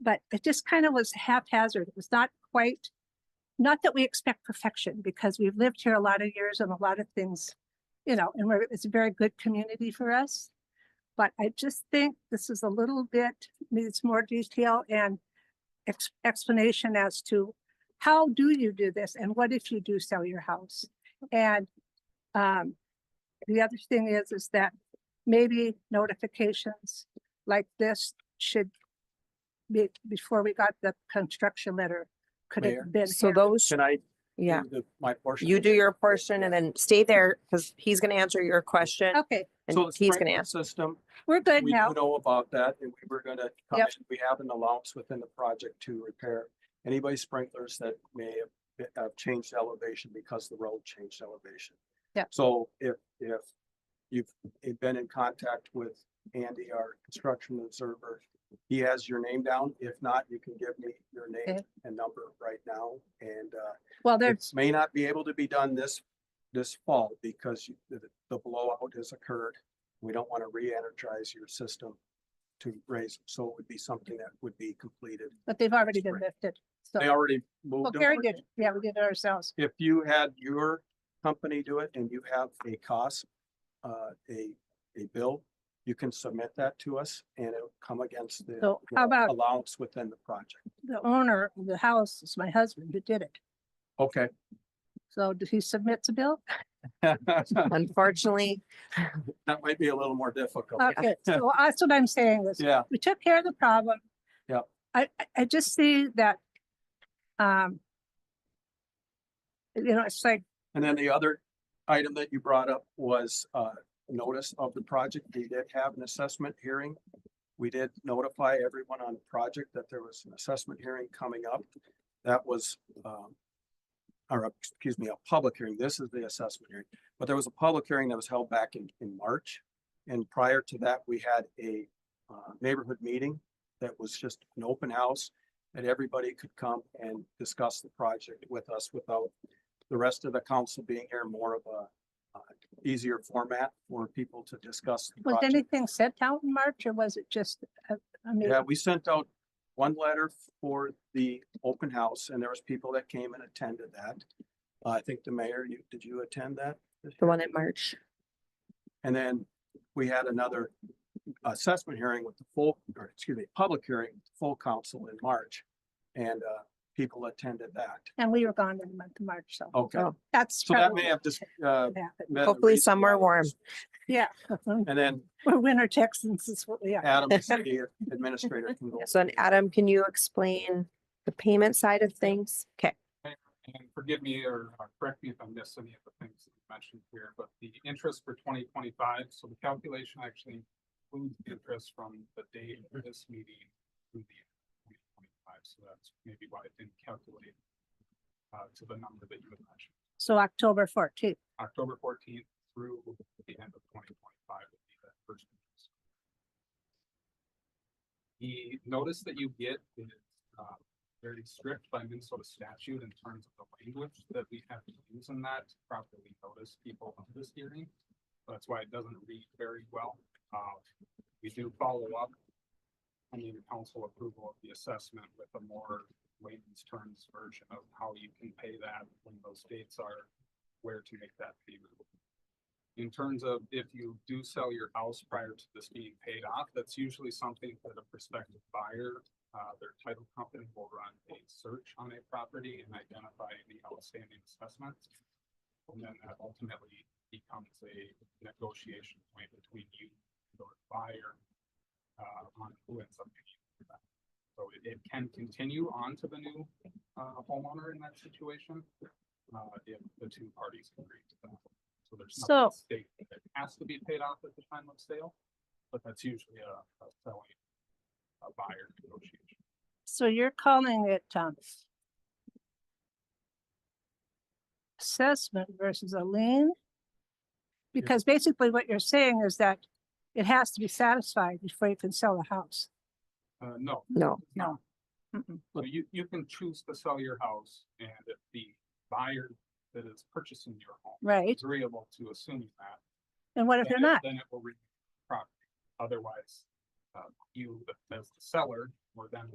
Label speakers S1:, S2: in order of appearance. S1: but it just kind of was haphazard. It was not quite, not that we expect perfection because we've lived here a lot of years and a lot of things, you know, and we're, it's a very good community for us. But I just think this is a little bit, needs more detail and ex- explanation as to how do you do this and what if you do sell your house? And um, the other thing is, is that maybe notifications like this should be, before we got the construction letter, could
S2: Mayor?
S1: have been
S3: So
S1: handled.
S3: those,
S2: Can I? do
S3: yeah,
S2: the- My portion.
S3: you do your portion and then stay there because he's going to answer your question
S1: Okay,
S3: and
S2: So the
S3: he's going to
S2: sprinkler
S3: answer.
S2: System,
S1: we're good
S2: we
S1: now.
S2: do know about that and we were gonna, come
S1: Yep.
S2: in. we have an allowance within the project to repair anybody sprinklers that may have been- have changed elevation because the road changed elevation.
S1: Yep.
S2: So if, if you've been in contact with Andy, our construction observer, he has your name down. If not, you can give me your name
S1: Okay.
S2: and number right now and, uh,
S1: Well, there's,
S2: it may not be able to be done this, this fall because you- the, the blowout has occurred. We don't want to re-energize your system to raise, so it would be something that would be completed.
S1: but they've already been
S2: Spring.
S1: lifted.
S2: They
S1: So, Oh,
S2: already
S1: well,
S2: moved. them.
S1: Gary did, yeah, we did it ourselves.
S2: If you had your company do it and you have a cost, uh, a, a bill, you can submit that to us and it'll come against the
S1: So
S2: the
S1: how about-
S2: allowance within the project.
S1: The owner of the house is my husband who did it.
S2: Okay.
S1: So did he submit the bill?
S2: That
S3: Unfortunately,
S2: might be a little more difficult.
S1: Okay, so that's what I'm saying is,
S2: Oh, Yeah,
S1: we took care of the problem.
S2: Yep.
S1: I, I- I just see that, um, you know, it's like,
S2: And then the other item that you brought up was uh notice of the project. We did have an assessment hearing. We did notify everyone on the project that there was an assessment hearing coming up. That was um or uh, excuse me, a public hearing. This is the assessment hearing, but there was a public hearing that was held back in in March. And prior to that, we had a uh neighborhood meeting that was just an open house that everybody could come and discuss the project with us without the rest of the council being here more of a uh, easier format for people to discuss. the
S1: was
S2: project.
S1: anything sent out in March or was it just, uh, I mean,
S2: Yeah, we sent out one letter for the open house and there was people that came and attended that. Uh, I think the mayor, you, did you attend that?
S3: the one in March.
S2: And then we had another assessment hearing with the full, or excuse me, public hearing, with the full council in March. And uh, people attended that.
S1: and we were gone in the month of March, so
S2: Okay,
S3: Oh,
S1: that's.
S2: so that
S1: probably
S2: may have just. uh,
S1: what happened.
S2: been the
S3: Hopefully
S2: reason
S3: somewhere
S2: why it
S3: warm.
S2: was-
S1: Yeah,
S2: And then
S1: we're winter Texans is what we are.
S2: Adam, the city administrator can go.
S3: So then Adam, can you explain the payment side of things? Okay,
S4: And forgive me or or correct me if I missed any of the things that you mentioned here, but the interest for twenty twenty-five, so the calculation actually includes the interest from the date of this meeting through the twenty twenty-five, so that's maybe why it didn't calculate uh, to the number that you had mentioned,
S1: So October fourteenth.
S4: October fourteenth through the end of twenty twenty-five would be the first. interest. The notice that you get is uh, very strict by Minnesota statute in terms of the language that we have to use in that to properly notice people of this hearing. That's why it doesn't read very well. Uh, we do follow up. I mean, council approval of the assessment with a more layman's terms version of how you can pay that when those dates are, where to make that payment. In terms of if you do sell your house prior to this being paid off, that's usually something that a prospective buyer uh, their title company will run a search on a property and identify any outstanding assessments. And then that ultimately becomes a negotiation point between you and your buyer. Uh, on who ends up paying for that. So it, it can continue on to the new, uh, homeowner in that situation. Uh, if the two parties agree to that. So there's
S1: So-
S4: nothing at stake that has to be paid off at the time of sale, but that's usually a, a selling a buyer negotiation.
S1: So you're calling it, um, assessment versus a lien? Because basically what you're saying is that it has to be satisfied before you can sell a house.
S4: Uh, no.
S3: no.
S4: it's not.
S1: Mm-mm.
S4: So you, you can choose to sell your house and if the buyer that is purchasing your home
S1: Right?
S4: is agreeable to assuming that.
S1: And what if
S4: then
S1: they're
S4: it-
S1: not?
S4: Then it will remain property. Otherwise, uh, you as the seller or them